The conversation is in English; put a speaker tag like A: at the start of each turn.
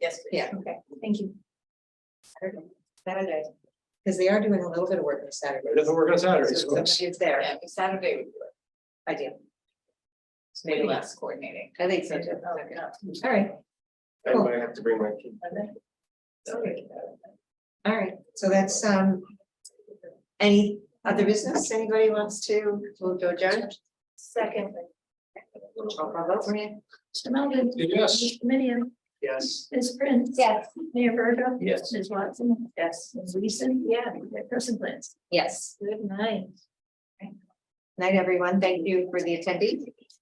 A: Yes, please.
B: Yeah, okay, thank you. Saturday, Saturday, because they are doing a little bit of work on Saturday.
C: It doesn't work on Saturdays.
B: So if It's there,
A: Yeah, but Saturday would be like
B: ideal.
A: maybe less coordinating. Oh,
B: I think so, too. all right,
C: I might have to bring my kid.
A: Sorry.
B: all right, so that's, um. Any other business, anybody wants to, move to adjourn?
A: Second.
B: Roll call vote, Maria?
D: Mr. Melvin.
C: Yes.
D: Mr. Minion.
C: Yes.
D: Ms. Prince.
B: Yes.
D: Mayor Verda.
C: Yes.
D: Ms. Watson.
A: Yes.
D: Ms. Weason. Yeah. Person Lance.
B: Yes,
D: Good night.
B: night, everyone, thank you for the attendees.